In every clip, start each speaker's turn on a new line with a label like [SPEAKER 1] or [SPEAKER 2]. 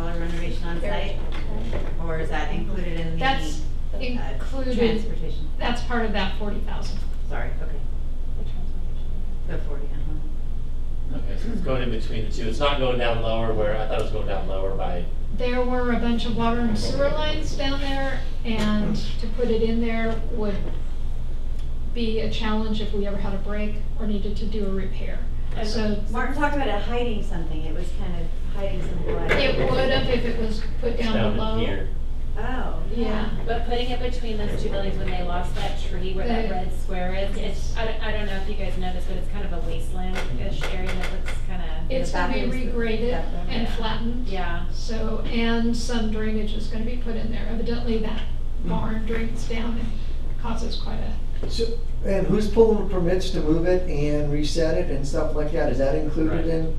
[SPEAKER 1] transportation on site? Or is that included in the?
[SPEAKER 2] That's
[SPEAKER 1] uh,
[SPEAKER 2] included,
[SPEAKER 1] Transportation,
[SPEAKER 2] that's part of that forty thousand.
[SPEAKER 1] sorry, okay, the forty, uh-huh.
[SPEAKER 3] Okay, so it's going in between the two. It's not going down lower where, I thought it was going down lower by,
[SPEAKER 2] There were a bunch of water and sewer lines down there, and to put it in there would be a challenge if we ever had a break or needed to do a repair. So
[SPEAKER 1] Martin talked about it hiding something, it was kind of hiding some blood.
[SPEAKER 2] it would have if it was put
[SPEAKER 3] it's
[SPEAKER 2] down
[SPEAKER 3] down in
[SPEAKER 2] below.
[SPEAKER 3] here.
[SPEAKER 1] Oh,
[SPEAKER 2] Yeah,
[SPEAKER 4] But putting it between those two buildings when they lost that tree where that
[SPEAKER 2] The-
[SPEAKER 4] red square is, it's, I don't, I don't know if you guys know this, but it's kind of a wasteland-ish area that looks kinda,
[SPEAKER 2] it's gonna be regraded and flattened.
[SPEAKER 4] yeah.
[SPEAKER 2] So, and some drainage is gonna be put in there. Evidently, that barn drains down and causes quite a,
[SPEAKER 5] So, and who's pulling the permits to move it and reset it and stuff like that? Is that
[SPEAKER 3] Right.
[SPEAKER 5] included in?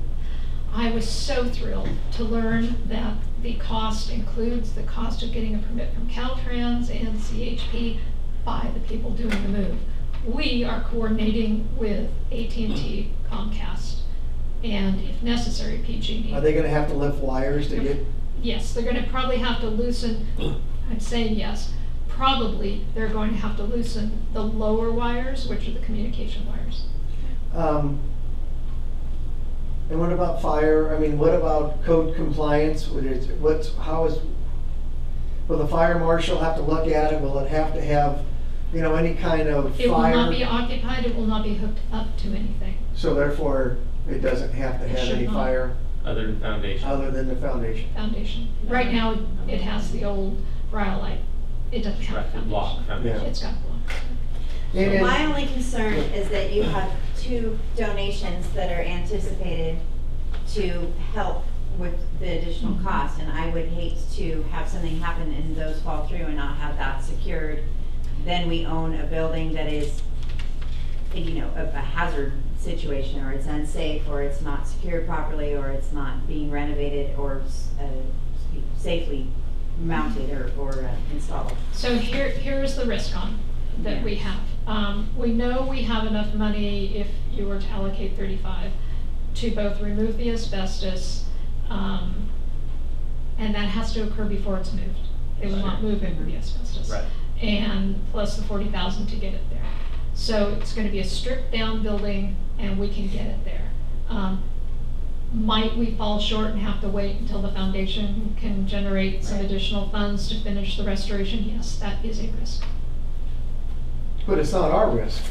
[SPEAKER 2] I was so thrilled to learn that the cost includes the cost of getting a permit from Caltrans and CHP by the people doing the move. We are coordinating with AT&T Comcast and if necessary, PG&E.
[SPEAKER 5] Are they gonna have to lift wires to get?
[SPEAKER 2] E. Yes, they're gonna probably have to loosen, I'm saying yes, probably they're going to have to loosen the lower wires, which are the communication wires.
[SPEAKER 5] um, And what about fire? I mean, what about code compliance? What is, what's, how is, will the fire marshal have to look at it? Will it have to have, you know, any kind of
[SPEAKER 2] It will not be
[SPEAKER 5] fire?
[SPEAKER 2] occupied, it will not be hooked up to anything.
[SPEAKER 5] So therefore, it doesn't have to
[SPEAKER 2] It
[SPEAKER 5] have
[SPEAKER 2] should
[SPEAKER 5] any
[SPEAKER 2] not.
[SPEAKER 5] fire
[SPEAKER 3] Other than foundation.
[SPEAKER 5] other than the foundation.
[SPEAKER 2] Foundation. Right now, it has the old rhyolite. It doesn't have a
[SPEAKER 3] Right, block
[SPEAKER 2] foundation.
[SPEAKER 3] foundation.
[SPEAKER 2] It's got a block.
[SPEAKER 5] And is-
[SPEAKER 1] My only concern is that you have two donations that are anticipated to help with the additional cost, and I would hate to have something happen and those fall through and not have that secured. Then we own a building that is, you know, a a hazard situation, or it's unsafe, or it's not secured properly, or it's not being renovated or s- uh, safely mounted or, or uh, installed.
[SPEAKER 2] So here, here is the risk on that we have. Um, we know we have enough money, if you were to allocate thirty-five, to both remove the asbestos, um, and that has to occur before it's moved. They will not move in the asbestos.
[SPEAKER 3] Right.
[SPEAKER 2] And plus the forty thousand to get it there. So it's gonna be a stripped-down building, and we can get it there. Um, might we fall short and have to wait until the foundation can generate some
[SPEAKER 4] Right.
[SPEAKER 2] additional funds to finish the restoration? Yes, that is a risk.
[SPEAKER 5] But it's not our risk,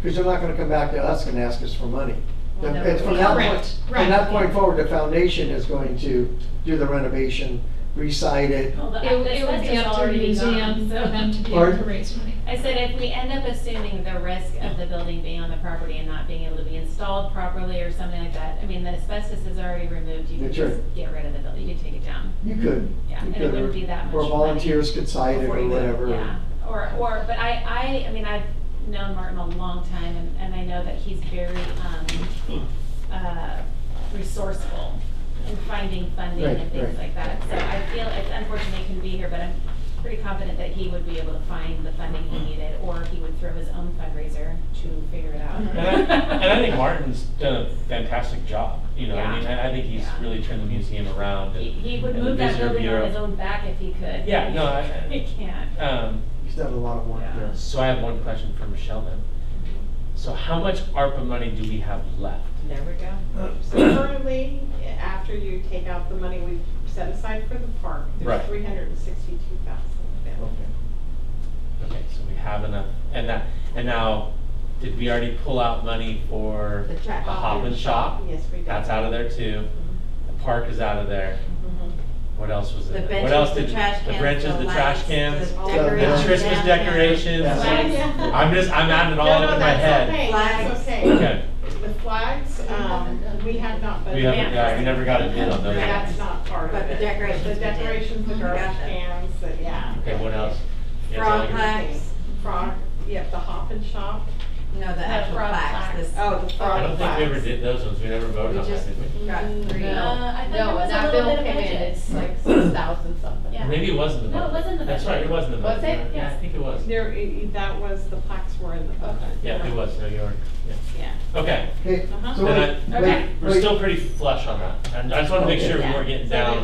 [SPEAKER 5] because they're not gonna come back to us and ask us for money.
[SPEAKER 4] Well, no,
[SPEAKER 5] It's from
[SPEAKER 4] we-
[SPEAKER 5] that point,
[SPEAKER 2] Correct,
[SPEAKER 5] from
[SPEAKER 2] right.
[SPEAKER 5] that point forward, the foundation is going to do the renovation, recite it.
[SPEAKER 4] Well, the-
[SPEAKER 2] It it would be
[SPEAKER 4] asbestos is
[SPEAKER 2] up to the
[SPEAKER 4] already
[SPEAKER 2] museum
[SPEAKER 4] gone,
[SPEAKER 2] for
[SPEAKER 4] so-
[SPEAKER 2] them to be able to
[SPEAKER 5] Pardon?
[SPEAKER 2] raise money.
[SPEAKER 4] I said if we end up assuming the risk of the building being on the property and not being able to be installed properly or something like that, I mean, the asbestos is already removed, you can
[SPEAKER 5] That's
[SPEAKER 4] just
[SPEAKER 5] right.
[SPEAKER 4] get rid of the building, you can take it down.
[SPEAKER 5] You could.
[SPEAKER 4] Yeah,
[SPEAKER 5] you
[SPEAKER 4] and it
[SPEAKER 5] could,
[SPEAKER 4] wouldn't
[SPEAKER 5] or-
[SPEAKER 4] be that much
[SPEAKER 5] Or
[SPEAKER 4] money.
[SPEAKER 5] volunteers could cite it
[SPEAKER 1] Before
[SPEAKER 5] or
[SPEAKER 1] you move,
[SPEAKER 5] whatever.
[SPEAKER 4] Yeah, or, or, but I, I, I mean, I've known Martin a long time and, and I know that he's very, um, uh, resourceful in finding funding and
[SPEAKER 5] Right,
[SPEAKER 4] things like
[SPEAKER 5] right.
[SPEAKER 4] that. So I feel, it's unfortunately couldn't be here, but I'm pretty confident that he would be able to find the funding he needed or he would throw his own fundraiser to figure it out.
[SPEAKER 3] And I, and I think Martin's done a fantastic job, you know, I mean, I I think he's
[SPEAKER 4] Yeah.
[SPEAKER 3] really turned the museum around.
[SPEAKER 4] He,
[SPEAKER 3] and-
[SPEAKER 4] he would
[SPEAKER 3] and the
[SPEAKER 4] move that
[SPEAKER 3] visitor
[SPEAKER 4] building on
[SPEAKER 3] bureau.
[SPEAKER 4] his own back if he could.
[SPEAKER 3] Yeah, no, I- I-
[SPEAKER 4] He can't.
[SPEAKER 3] Um,
[SPEAKER 5] He's done a lot of work
[SPEAKER 4] Yeah.
[SPEAKER 5] there.
[SPEAKER 3] so I have one question for Michelle then. So how much ARPA money do we have left?
[SPEAKER 4] There we go.
[SPEAKER 6] So currently, after you take out the money we've set aside for the park,
[SPEAKER 3] Right.
[SPEAKER 6] there's three hundred and sixty-two thousand.
[SPEAKER 5] Okay.
[SPEAKER 3] Okay, so we have enough, and that, and now, did we already pull out money for
[SPEAKER 1] The
[SPEAKER 3] the
[SPEAKER 1] track
[SPEAKER 3] Hop and Shop?
[SPEAKER 6] Yes, we did.
[SPEAKER 3] That's out of there too. The park is out of there.
[SPEAKER 6] Mhm.
[SPEAKER 3] What else was in
[SPEAKER 1] The
[SPEAKER 3] there? What else
[SPEAKER 1] benches,
[SPEAKER 3] did
[SPEAKER 1] the trash cans.
[SPEAKER 3] The benches, the trash cans,
[SPEAKER 1] lights,
[SPEAKER 6] the
[SPEAKER 3] the
[SPEAKER 5] decorations
[SPEAKER 3] Christmas
[SPEAKER 1] down there.
[SPEAKER 3] decorations.
[SPEAKER 5] Yeah.
[SPEAKER 6] Flags.
[SPEAKER 3] I'm just, I'm adding it all
[SPEAKER 6] No,
[SPEAKER 3] up
[SPEAKER 6] no,
[SPEAKER 3] in my
[SPEAKER 6] that's
[SPEAKER 3] head.
[SPEAKER 6] okay, That's okay.
[SPEAKER 3] Okay,
[SPEAKER 6] The flags, um, we have not, but.
[SPEAKER 3] we haven't, yeah, we never got a bid on those.
[SPEAKER 6] That's not part of
[SPEAKER 1] But
[SPEAKER 6] it.
[SPEAKER 1] the decorations we
[SPEAKER 6] The
[SPEAKER 1] did.
[SPEAKER 6] decorations, the
[SPEAKER 1] Mhm.
[SPEAKER 6] garbage
[SPEAKER 1] Gotcha.
[SPEAKER 6] cans, the- yeah.
[SPEAKER 3] Okay, what else? Yeah, it's all
[SPEAKER 1] Frog
[SPEAKER 3] good.
[SPEAKER 1] plaques,
[SPEAKER 6] Frog, yep, the hop and shop.
[SPEAKER 1] no, the actual
[SPEAKER 4] frog
[SPEAKER 1] plaques,
[SPEAKER 4] plaques.
[SPEAKER 1] this.
[SPEAKER 6] Oh, the frog
[SPEAKER 3] I don't think we ever
[SPEAKER 6] plaques.
[SPEAKER 3] did those ones. We never voted
[SPEAKER 1] We
[SPEAKER 3] on that,
[SPEAKER 1] just-
[SPEAKER 3] did we?
[SPEAKER 1] Got three.
[SPEAKER 4] Uh, I thought there
[SPEAKER 7] No,
[SPEAKER 4] was a
[SPEAKER 7] that
[SPEAKER 4] little
[SPEAKER 7] bill
[SPEAKER 4] bit of
[SPEAKER 7] came in,
[SPEAKER 4] budget.
[SPEAKER 7] it's like six thousand something.
[SPEAKER 4] Yeah.
[SPEAKER 3] Maybe it wasn't the
[SPEAKER 4] No, it
[SPEAKER 3] vote.
[SPEAKER 4] wasn't the
[SPEAKER 3] That's
[SPEAKER 4] vote.
[SPEAKER 3] right, it wasn't the vote.
[SPEAKER 7] Was it?
[SPEAKER 3] Yeah, I think it was.
[SPEAKER 6] There, i- that was, the plaques were in the budget.
[SPEAKER 3] Yeah, it was, no, you were, yeah.
[SPEAKER 6] Yeah.
[SPEAKER 3] Okay,
[SPEAKER 5] Okay,
[SPEAKER 6] Uh-huh.
[SPEAKER 5] so
[SPEAKER 3] Then
[SPEAKER 5] wait,
[SPEAKER 3] I-
[SPEAKER 5] wait,
[SPEAKER 4] Okay.
[SPEAKER 3] we're
[SPEAKER 5] wait.
[SPEAKER 3] still pretty flush on that. And I just wanna make sure we
[SPEAKER 1] Yeah.
[SPEAKER 3] weren't getting
[SPEAKER 6] So
[SPEAKER 3] down.